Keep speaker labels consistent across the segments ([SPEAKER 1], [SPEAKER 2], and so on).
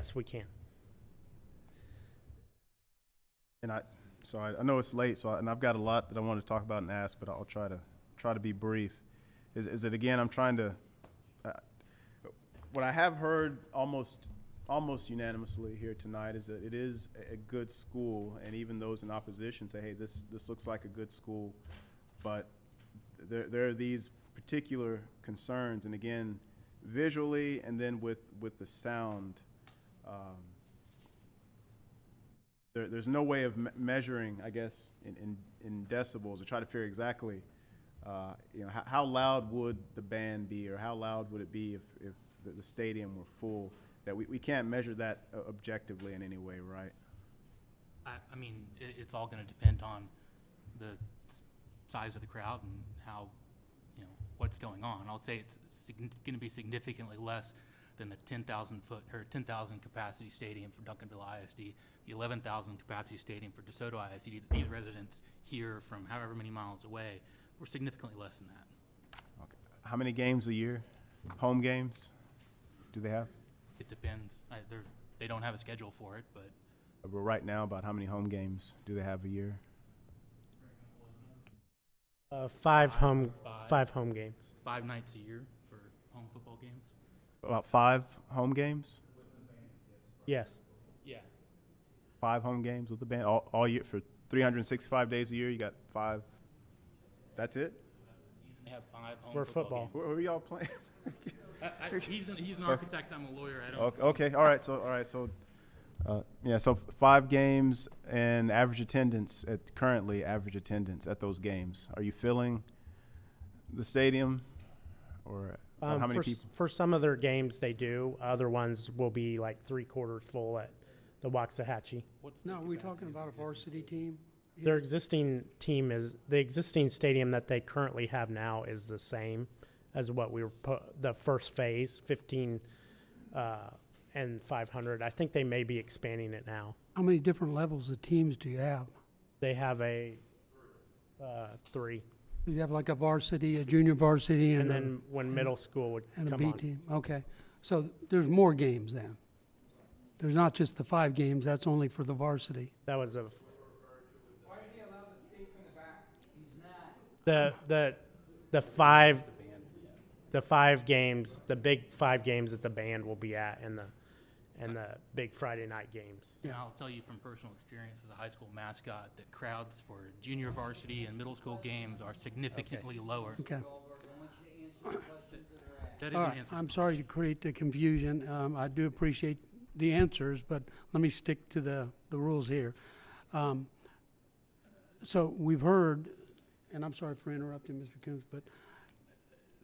[SPEAKER 1] Yes, we can.
[SPEAKER 2] And I, so I, I know it's late, so, I- and I've got a lot that I want to talk about and ask, but I'll try to, try to be brief. Is, is it again, I'm trying to, uh, what I have heard almost, almost unanimously here tonight is that it is a- a good school, and even those in opposition say, hey, this, this looks like a good school, but there, there are these particular concerns, and again, visually and then with, with the sound. um, there, there's no way of me- measuring, I guess, in, in, in decibels to try to figure exactly, uh, you know, how, how loud would the band be or how loud would it be if, if the, the stadium were full? That we, we can't measure that uh, objectively in any way, right?
[SPEAKER 3] I, I mean, it, it's all gonna depend on the s- size of the crowd and how, you know, what's going on. I'll say it's sign- gonna be significantly less than the ten thousand foot, or ten thousand capacity stadium for Duncanville ISD, the eleven thousand capacity stadium for DeSoto ISD. These residents here from however many miles away were significantly less than that.
[SPEAKER 2] Okay. How many games a year? Home games? Do they have?
[SPEAKER 3] It depends. I, they're, they don't have a schedule for it, but
[SPEAKER 2] Uh, Well, right now, about how many home games do they have a year?
[SPEAKER 1] Uh, five home,
[SPEAKER 3] Five.
[SPEAKER 1] five home games.
[SPEAKER 3] five nights a year for home football games.
[SPEAKER 2] About five home games?
[SPEAKER 1] Yes,
[SPEAKER 3] Yeah.
[SPEAKER 2] Five home games with the band all, all year for 365 days a year. You got five. That's it.
[SPEAKER 3] They have five home
[SPEAKER 1] For
[SPEAKER 3] football
[SPEAKER 1] football.
[SPEAKER 3] games.
[SPEAKER 2] Who who are y'all playing?
[SPEAKER 3] I- I- He's an, he's an architect, I'm a lawyer, I don't,
[SPEAKER 2] Okay, okay, all right, so, all right, so, uh, yeah, so f- five games and average attendance at, currently average attendance at those games. Are you filling the stadium? Or or
[SPEAKER 1] Um,
[SPEAKER 2] how many
[SPEAKER 1] for, s-
[SPEAKER 2] people?
[SPEAKER 1] for some of their games they do. Other ones will be like three quarters full at the Waxahachie.
[SPEAKER 3] what's the
[SPEAKER 4] Now, are we
[SPEAKER 3] capacity
[SPEAKER 4] talking
[SPEAKER 3] of
[SPEAKER 4] about a
[SPEAKER 3] the business?
[SPEAKER 4] varsity team?
[SPEAKER 1] Their existing team is the existing stadium that they currently have now is the same as what we were pu- the first phase, fifteen uh, and five hundred. I think they may be expanding it now.
[SPEAKER 4] How many different levels of teams do you have?
[SPEAKER 1] They have a uh, three,
[SPEAKER 4] Do you have like a varsity, a junior varsity,
[SPEAKER 1] and
[SPEAKER 4] and a,
[SPEAKER 1] then when middle school would
[SPEAKER 4] and a
[SPEAKER 1] come
[SPEAKER 4] B
[SPEAKER 1] on,
[SPEAKER 4] team? Okay, so there's more games then. There's not just the five games, that's only for the varsity.
[SPEAKER 1] that was a
[SPEAKER 5] Why is he allowed to speak from the back? He's not.
[SPEAKER 1] the the the five the five games the big five games that the band will be at and the and the big friday night games
[SPEAKER 3] And I'll tell you from personal experience as a high school mascot, that crowds for junior varsity and middle school games are significantly lower.
[SPEAKER 4] Okay.
[SPEAKER 5] I want you to answer the questions that are asked.
[SPEAKER 3] That is
[SPEAKER 4] All
[SPEAKER 3] an
[SPEAKER 4] right,
[SPEAKER 3] answer.
[SPEAKER 4] I'm sorry to create the confusion. Um, I do appreciate the answers, but let me stick to the, the rules here. Um, so we've heard, and I'm sorry for interrupting, Mr. Coombs, but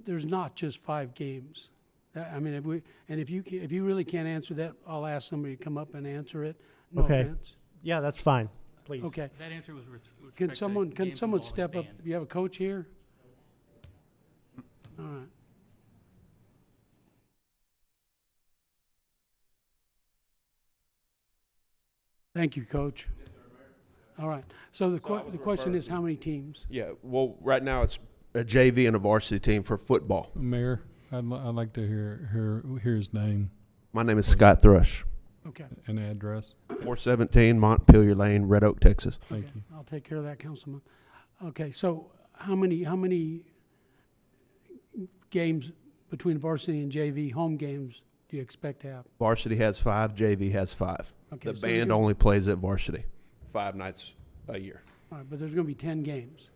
[SPEAKER 4] there's not just five games. I- I mean, if we, and if you, ca- if you really can't answer that, I'll ask somebody to come up and answer it. No
[SPEAKER 1] Okay.
[SPEAKER 4] offense.
[SPEAKER 1] yeah that's fine please
[SPEAKER 4] Okay.
[SPEAKER 3] That answer was with with respect
[SPEAKER 4] Can
[SPEAKER 3] to
[SPEAKER 4] someone, can
[SPEAKER 3] games
[SPEAKER 4] someone
[SPEAKER 3] involving
[SPEAKER 4] step up?
[SPEAKER 3] band.
[SPEAKER 4] You have a coach here? All right. Thank you, coach. All right. So the que- the question is, how many teams?
[SPEAKER 6] Yeah, well, right now it's a JV and a varsity team for football.
[SPEAKER 7] Mayor, I'd, li- I'd like to hear, hear, hear his name
[SPEAKER 6] My name is Scott Thrush,
[SPEAKER 4] Okay.
[SPEAKER 7] and address.
[SPEAKER 6] 417 Montpelier Lane, Red Oak, Texas.
[SPEAKER 7] Thank
[SPEAKER 4] okay.
[SPEAKER 7] you.
[SPEAKER 4] I'll take care of that, Councilman. Okay, so how many, how many games between varsity and JV, home games, do you expect to have?
[SPEAKER 6] Varsity has five, JV has five.
[SPEAKER 4] Okay,
[SPEAKER 6] The
[SPEAKER 4] so
[SPEAKER 6] band
[SPEAKER 4] you're-
[SPEAKER 6] only plays at varsity five nights a year.
[SPEAKER 4] All right, but there's going to be 10 games.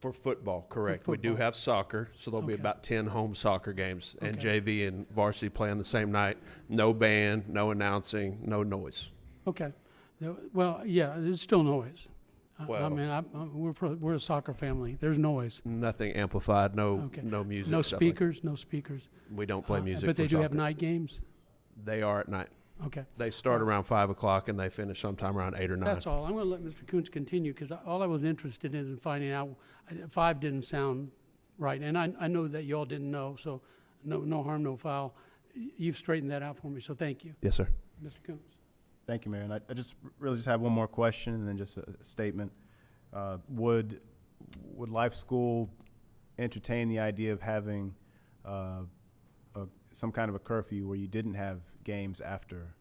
[SPEAKER 6] For football, correct. We do
[SPEAKER 4] football.
[SPEAKER 6] have soccer, so there'll be
[SPEAKER 4] Okay.
[SPEAKER 6] about 10 home soccer games, and
[SPEAKER 4] Okay.
[SPEAKER 6] JV and varsity play on the same night. No band, no announcing, no noise.
[SPEAKER 4] Okay. No, Well, yeah, there's still noise. I- I
[SPEAKER 6] Well-
[SPEAKER 4] mean, I, I- we're, pro- we're a soccer family. There's noise.
[SPEAKER 6] Nothing amplified, no
[SPEAKER 4] Okay.
[SPEAKER 6] no music.
[SPEAKER 4] No
[SPEAKER 6] stuff like that.
[SPEAKER 4] speakers, no speakers.
[SPEAKER 6] we don't play
[SPEAKER 4] Uh,
[SPEAKER 6] music.
[SPEAKER 4] But they
[SPEAKER 6] for
[SPEAKER 4] do have
[SPEAKER 6] soccer.
[SPEAKER 4] night games?
[SPEAKER 6] They are at night.
[SPEAKER 4] Okay.
[SPEAKER 6] They start around five o'clock and they finish sometime around eight or nine.
[SPEAKER 4] That's all. I'm going to let Mr. Coons continue because all I was interested in is finding out, I- five didn't sound right. And I, I know that y'all didn't know, so no, no harm, no foul. Y- You've straightened that out for me, so thank you,
[SPEAKER 6] Yes, sir.
[SPEAKER 4] Mr. Coons.
[SPEAKER 2] Thank you, Mayor, and I, I just r- really just have one more question and then just a a statement. Uh, would, would Life School entertain the idea of having, uh, a, some kind of a curfew where you didn't have games after